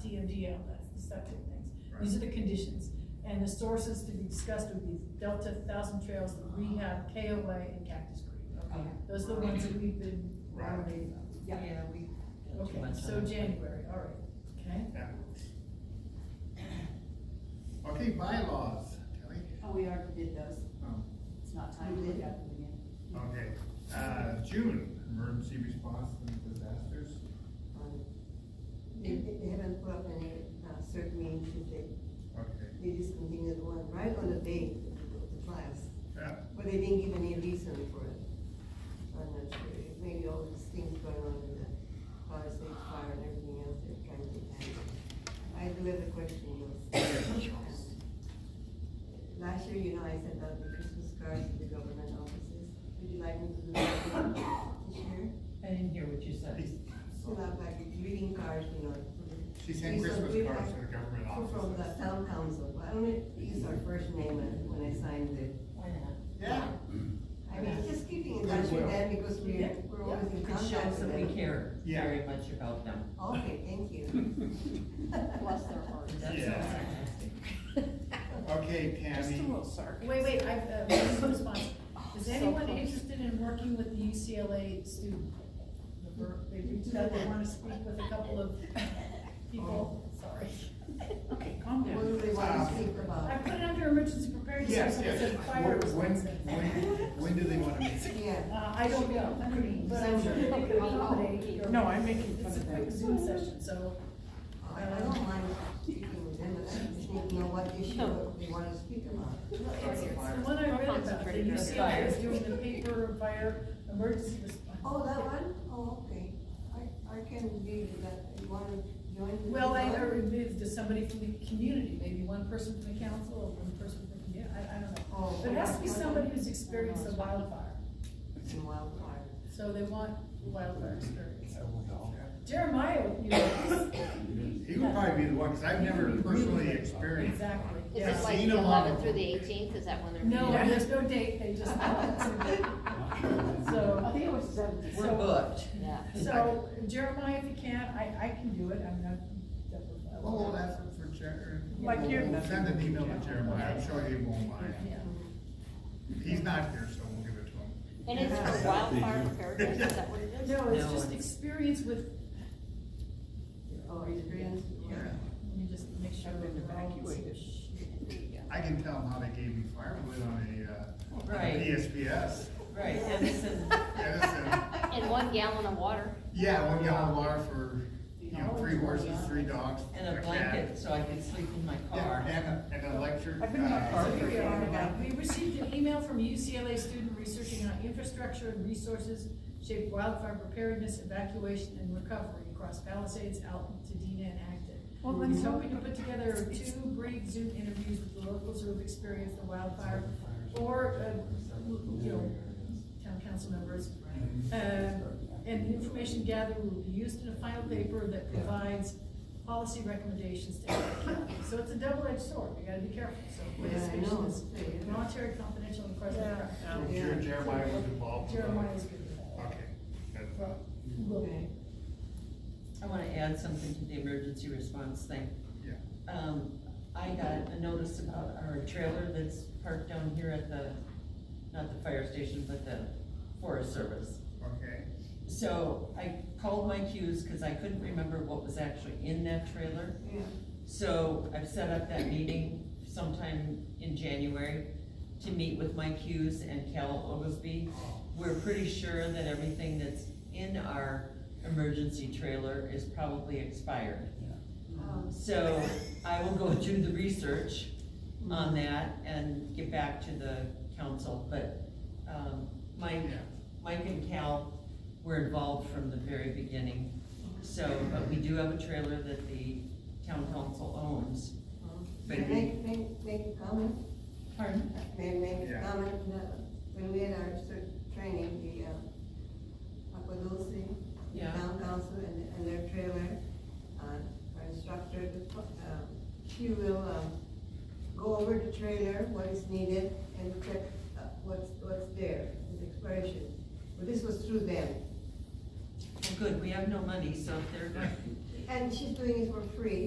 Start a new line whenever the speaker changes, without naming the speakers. TMGL, that's the septic things.
Right.
These are the conditions. And the sources to be discussed would be Delta, Thousand Trails, the rehab, KOA, and Cactus Creek. Okay.
Okay.
Those are the ones that we've been
Right.
nominated on.
Yeah.
Yeah, we. did too
Okay,
much
so
on it.
January, all right, okay?
Yeah. Okay, bylaws, Kelly.
Oh, we already did those.
Oh,
It's not time to look at them again.
Okay, uh, June, emergency response and disasters.
Um, They, they haven't put up any, uh, cert meetings, that they,
Okay,
they discontinued the one right on the day of the class,
yeah,
but they didn't give any reason for it. I'm not sure, maybe all these things going on with the fire state fire and everything else, they're trying to handle. I do have a question, yes. Last year, you know, I sent out the Christmas cards to the government offices, would you like me to do that this year?
I didn't hear what you said.
Fill out like greeting cards, you know.
she sent
These are
Christmas
great-
cards to the government
From the
offices.
town council, I only use our first name when when I signed it.
Why not?
Yeah,
I mean, just keeping in touch with them because we're,
Yeah,
we're always in
It
contact
shows
with
that we
them.
care
Yeah.
very much about them.
Okay, thank you.
Bless their hearts.
That's
Yeah.
fantastic.
okay, Tammy.
Wait, wait, I, uh, one response. Is
Oh,
so
anyone
close.
interested in working with the UCLA student? The ver- They reached out, they wanna speak with a couple of people,
Oh.
sorry.
Okay, calm
What do they want to speak
I
about?
put it under emergency preparedness,
Yes,
so it
yes.
said fire
Wh- When,
response.
when, when do they wanna meet?
Yeah,
Uh, I don't know, I mean, but I'm sure they
Oh.
could accommodate. your-
No, I'm making fun
It's a
of
quick
that.
Zoom session, so,
I I don't mind speaking with them, but I just need to know what issue we want to speak about.
it's, it's the one I read about, the UCLA is doing the paper fire emergency response.
Oh, that one? Oh, okay. I, I can be that, you want to join?
Well, I I removed to somebody from the community, maybe one person from the council, or one person from, the commu- I, I don't know.
Oh.
There has to be somebody who's experienced a wildfire,
In wildfire.
so they want wildfire experience.
Oh He
Jeremiah, you know,
would probably be the one, cause I've never personally experienced.
exactly,
Is
yeah.
it like
Casino
the eleventh
level.
through the eighteenth, is that when they're?
No,
meeting?
there's no date, they just want to.
I
So,
think it was seven.
We're booked.
Yeah.
so Jeremiah, if you can, I, I can do it, I'm not.
Oh, that's for Jer,
Like you're-
we'll send an email to Jeremiah, I'm sure he won't mind.
Yeah.
He's not here, so we'll give it to him.
And it's for wildfire preparedness, is that what it is?
No, it's
No,
just
it's-
experience with,
Oh, experience?
let me just make sure.
I've been
we're all-
evacuated.
I can tell him how they gave me firewood on a, uh, on a
Right.
PSPS.
Right, Edison.
Edison,
And one gallon of water.
yeah, one gallon of water for, you know, three horses, three dogs.
And a
cat.
blanket, so I could sleep in my
Yeah,
car.
and, a- and an electric.
I've been in my
uh,
car.
So here we are. We received an email from a UCLA student researching how infrastructure and resources shape wildfire preparedness, evacuation, and recovery across Palisades, Alton, Tadena, and Acton.
Well,
He's
that's-
hoping to put together two brief Zoom interviews with the locals who have experienced the wildfire, or, uh, you know, town council members. Um, And the information gathered will be used in a final paper that provides policy recommendations to every county. So it's a double-edged sword, you gotta be careful, so participation is voluntary, confidential, and correspondent.
So Jer- Jeremiah was involved. with that.
Jeremiah is good with that.
Okay, good.
Well, we'll-
Okay.
I wanna add something to the emergency response thing.
yeah,
Um, I got a notice about our trailer that's parked down here at the, not the fire station, but the Forest Service.
okay,
So I called my cues, cause I couldn't remember what was actually in that trailer.
Yeah.
So I've set up that meeting sometime in January to meet with Mike Hughes and Cal Oglesby. We're pretty sure that everything that's in our emergency trailer is probably expired.
Um,
So I will go do the research on that and get back to the council, but, um, Mike,
Yeah.
Mike and Cal were involved from the very beginning. So, but we do have a trailer that the town council owns.
May, may, may- make a comment?
Pardon?
May, make a
Yeah.
comment, No, when we had our cert training, the, uh, Aqua Dulce, the
Yeah.
town council and, and their trailer, uh, our instructor, um, she will, um, go over the trailer, what is needed, and check, uh, what's, what's there, the expiration. But this was through them.
Well, good, we have no money, so if they're.
And she's doing it for free,